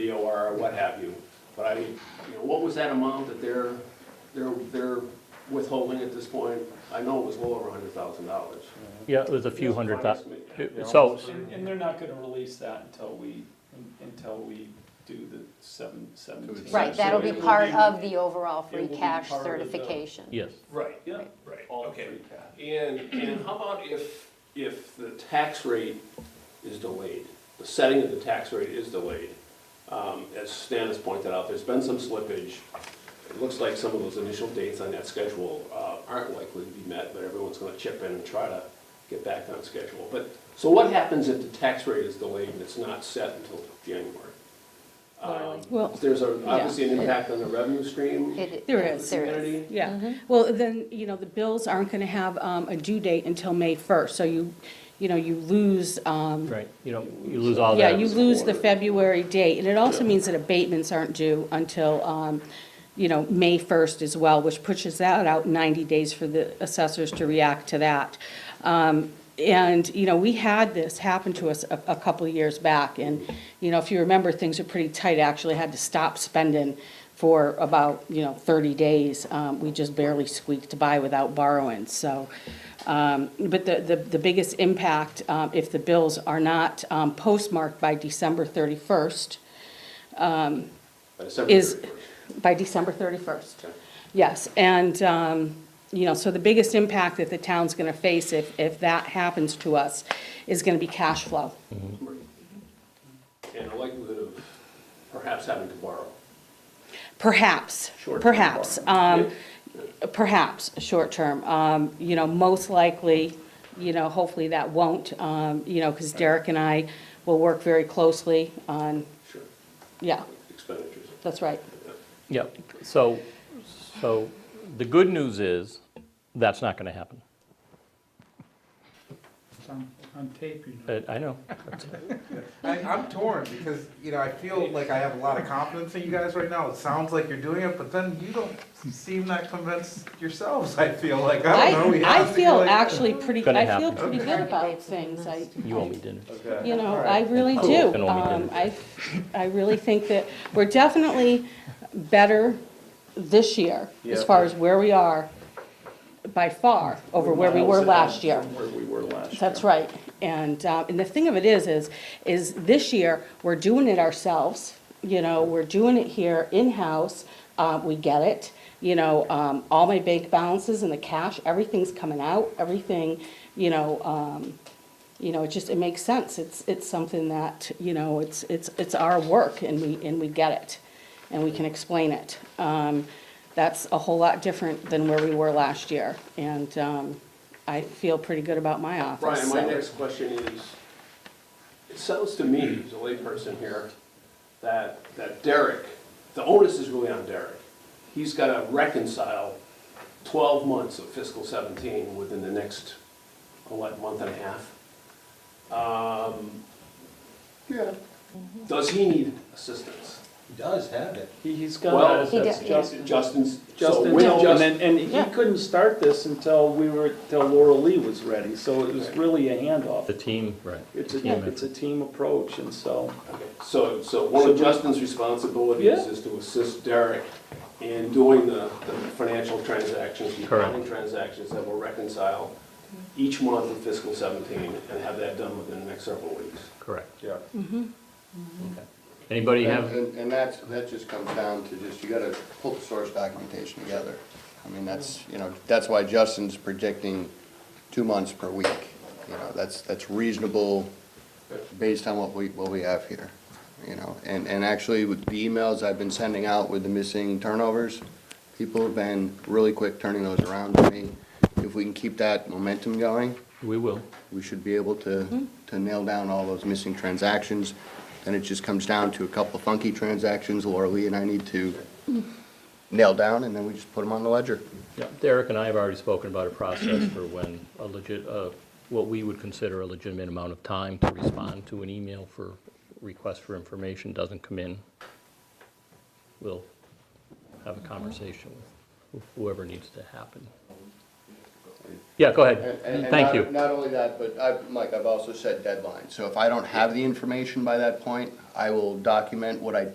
or what have you. But I, mean, you know, what was that amount that they're, they're, they're withholding at this point? I know it was well over a hundred thousand dollars. Yeah, it was a few hundred thou, Yeah. so, And, and they're not gonna release that until we, until we do the seven, seventeen. Right, So that'll it be will part of the overall it free will be cash part of the- certification. yes. Right, Yeah, right, all okay. free cash. And, and how about if, if the tax rate is delayed? The setting of the tax rate is delayed. Um, As Stan has pointed out, there's been some slippage. It looks like some of those initial dates on that schedule uh, aren't likely to be met, but everyone's gonna chip in and try to get back on schedule. But, so what happens if the tax rate is delayed and it's not set until January? Um, Well, There's a- obviously an impact on the revenue stream. It- There of the is. there community. yeah, well, then, you know, the bills aren't gonna have um, a due date until May first, so you, you know, you lose, um, Right, you know, you lose all yeah, Oh, that. you lose the February date, and it also means that abatements aren't due until, um, you know, May first as well, which pushes that out ninety days for the assessors to react to that. Um, and, you know, we had this happen to us a, a couple of years back, and, you know, if you remember, things were pretty tight, I actually had to stop spending for about, you know, thirty days. Um, we just barely squeaked by without borrowing, so. Um, but the, the, the biggest impact, um, if the bills are not, um, postmarked by December thirty-first, By December is, 31st. by December 31st. Yes, and, um, you know, so the biggest impact that the town's going to face if, if that happens to us is going to be cash flow. and a likelihood of perhaps having to borrow. Perhaps, Short-term perhaps, borrowing. um, perhaps, short-term. Um, You know, most likely, you know, hopefully that won't, um, you know, because Derek and I will work very closely on, Sure, yeah, expenditures. that's right. Yep, so, so the good news is, that's not gonna happen. It's on, on tape, you know. Uh, I I know, I, I'm torn because, you know, I feel like I have a lot of confidence in you guys right now. It sounds like you're doing it, but then you don't seem that convinced yourselves, I feel like. I don't know. I, we I have to be feel like- actually pretty, Gonna I feel happen. pretty good about things. I, you owe me dinner. Okay, You know, all I right. really Oh, do. and only Um, did. I, I really think that we're definitely better this year, as Yeah. far as where we are, by far, over where we Miles were ahead last year. From where we were last year. That's right. And, uh, and the thing of it is, is, is this year, we're doing it ourselves, you know, we're doing it here in-house, uh, we get it. You know, um, all my bank balances and the cash, everything's coming out, everything, you know, um, you know, it just, it makes sense. It's, it's something that, you know, it's, it's, it's our work and we, and we get it. And we can explain it. Um, that's a whole lot different than where we were last year. And, um, I feel pretty good about my office. Brian, my so- next question is, it sounds to me, as a layperson here, that, that Derek, the onus is really on Derek. He's got to reconcile 12 months of fiscal 17 within the next, what, month and a half? Um, Yeah. Does he need assistance? He does have it. He, he's got. Well, He does, yeah. Justin's, so Justin with told him, Justin, and, and he Yeah. couldn't start this until we were, till Laura Lee was ready, so it was really a The handoff. team, right. It's a, Team it's a team approach, and so, Okay, So, so one of So- Justin's responsibilities Yeah. is to assist Derek in doing the, the financial transactions, the Correct. accounting transactions that will reconcile each month of fiscal seventeen and have that done within the next several weeks. Correct. Yeah. Mm-hmm. Okay. Anybody have, And, and that's, that just comes down to just, you gotta pull the source documentation together. I mean, that's, you know, that's why Justin's predicting two months per week. You know, that's, that's reasonable based on what we, what we have here, you know? And, and actually with the emails I've been sending out with the missing turnovers, people have been really quick turning those around to me. If we can keep that momentum going, we will. we should be able to, to nail down all those missing transactions. And it just comes down to a couple funky transactions Laura Lee and I need to nail down, and then we just put them on the ledger. Yeah, Derek and I have already spoken about a process for when a legit, uh, what we would consider a legitimate amount of time to respond to an email for request for information doesn't come in. We'll have a conversation with whoever needs to happen. Yeah, go And- ahead. and- and Thank not- you. Not only that, but I, Mike, I've also set deadlines. So if I don't have the information by that point, I will document what I